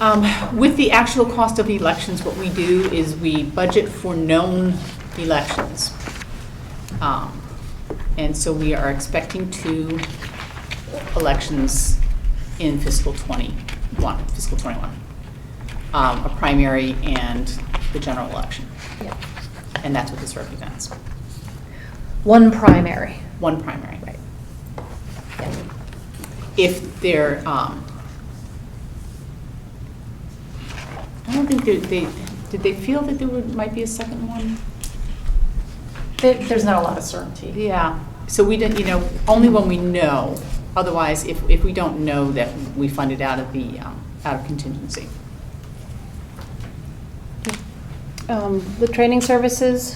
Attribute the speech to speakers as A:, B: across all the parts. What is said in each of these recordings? A: Um, With the actual cost of elections, what we do is we budget for known elections. Um, And so we are expecting two elections in fiscal '21, fiscal '21. A primary and the general election.
B: Yeah.
A: And that's what this represents.
B: One primary.
A: One primary.
B: Right. Yeah.
A: if they're, um, I don't think they, they, did they feel that there would, might be a second one?
B: There- There's not a lot of certainty.
A: Yeah, so we didn't, you know, only when we know. Otherwise, if, if we don't know that we fund it out of the, um, out of contingency.
C: Um, The training services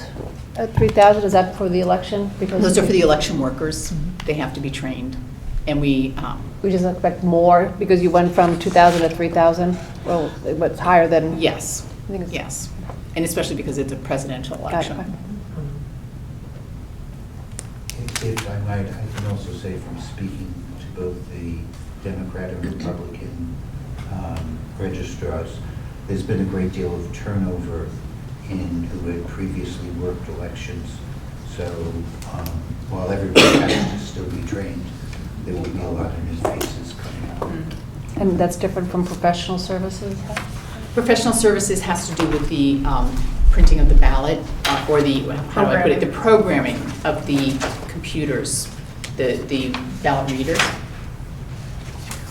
C: at 3,000, is that for the election? Because
A: Those are for the election workers. They have to be trained. And we, um,
C: We just expect more because you went from 2,000 to 3,000? Well, it was higher than?
A: yes,
C: I think it's-
A: yes. And especially because it's a presidential
C: Gotcha.
A: election.
D: If if I might, I can also say from speaking to both the Democrat and Republican um, registrars, there's been a great deal of turnover in who had previously worked elections. So um, while everybody has to still be trained, there will be a lot of new faces coming out.
C: And that's different from professional services?
A: Professional services has to do with the um, printing of the ballot, uh, or the, how do I put it, the programming of the computers, the the ballot readers.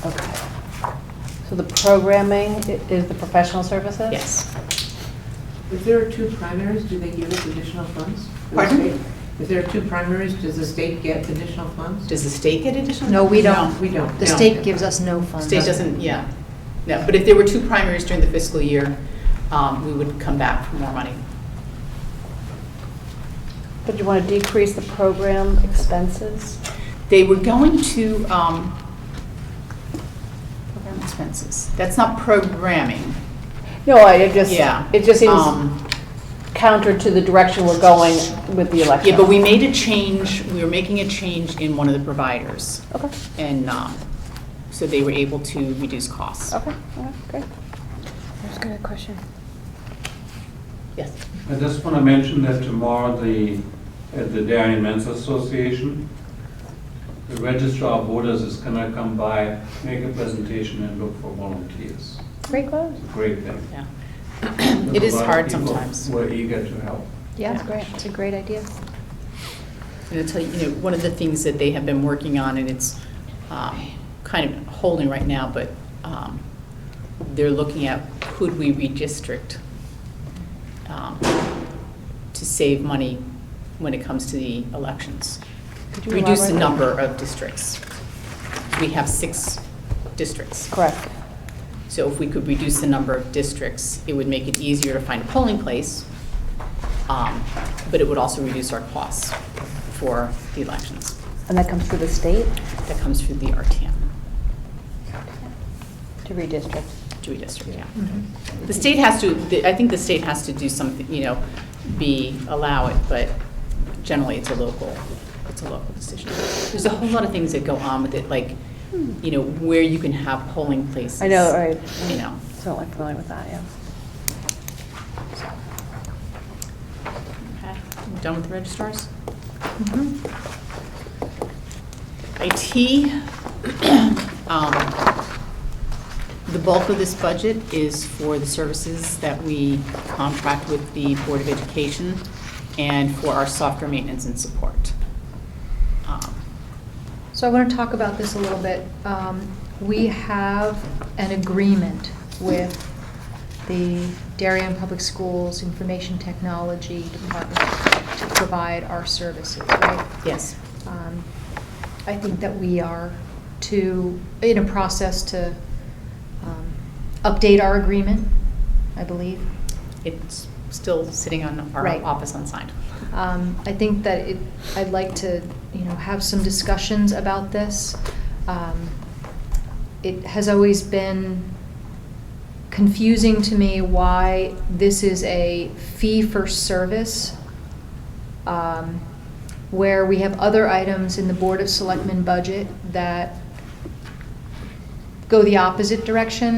C: Okay. So the programming i- is the professional services?
A: Yes.
E: If there are two primaries, do they give us additional funds? from the
A: Pardon?
E: state? If there are two primaries, does the state get additional funds?
A: Does the state get additional?
B: No, we don't.
E: We don't.
B: The
A: No.
B: state gives us no funds.
A: State doesn't, yeah. No, but if there were two primaries during the fiscal year, um, we would come back for more money.
C: But you want to decrease the program expenses?
A: They were going to, um, program expenses. That's not programming.
C: No, I it just,
A: Yeah.
C: it just seems
A: Um,
C: counter to the direction we're going with the election.
A: Yeah, but we made a change, we were making a change in one of the providers,
C: Okay,
A: and um, so they were able to reduce costs.
C: okay, okay, great.
B: That's a good question.
A: Yes.
F: I just want to mention that tomorrow, the, at the Dairy and Men's Association, the registrar of voters is going to come by, make a presentation and look for volunteers.
C: Great close.
F: It's a great thing.
A: Yeah.
F: There's
A: It is
F: a lot of
A: hard
F: people
A: sometimes.
F: who are eager to help.
B: Yeah,
A: Yeah.
B: it's great. It's a great idea.
A: And I'll tell you, you know, one of the things that they have been working on, and it's um, kind of holding right now, but um, they're looking at could we redistrict um, to save money when it comes to the elections?
C: Could you
A: Reduce the
C: elaborate?
A: number of districts. We have six districts.
C: Correct.
A: So if we could reduce the number of districts, it would make it easier to find a polling place, um, but it would also reduce our costs for the elections.
C: And that comes through the state
A: That comes through the RTM,
C: to redistrict.
A: Dewey District, yeah.
C: Mm-hmm.
A: The state has to, the- I think the state has to do something, you know, be, allow it, but generally it's a local, it's a local decision. There's a whole lot of things that go on with it, like, you know, where you can have polling places.
C: I know, right.
A: You know.
C: So I'm familiar with that, yeah.
A: Okay, I'm Done with the registrars?
B: Mm-hmm.
A: IT, um, the bulk of this budget is for the services that we contract with the Board of Education and for our software maintenance and support. Um,
B: So I want to talk about this a little bit. Um, We have an agreement with the Darien Public Schools Information Technology Department to provide our services, right?
A: Yes,
B: Um, I think that we are to, in a process to um, update our agreement, I believe.
A: it's still sitting on our
B: Right.
A: office unsigned.
B: Um, I think that it, I'd like to, you know, have some discussions about this. Um, It has always been confusing to me why this is a fee-for-service, um, where we have other items in the Board of Selectmen budget that go the opposite direction,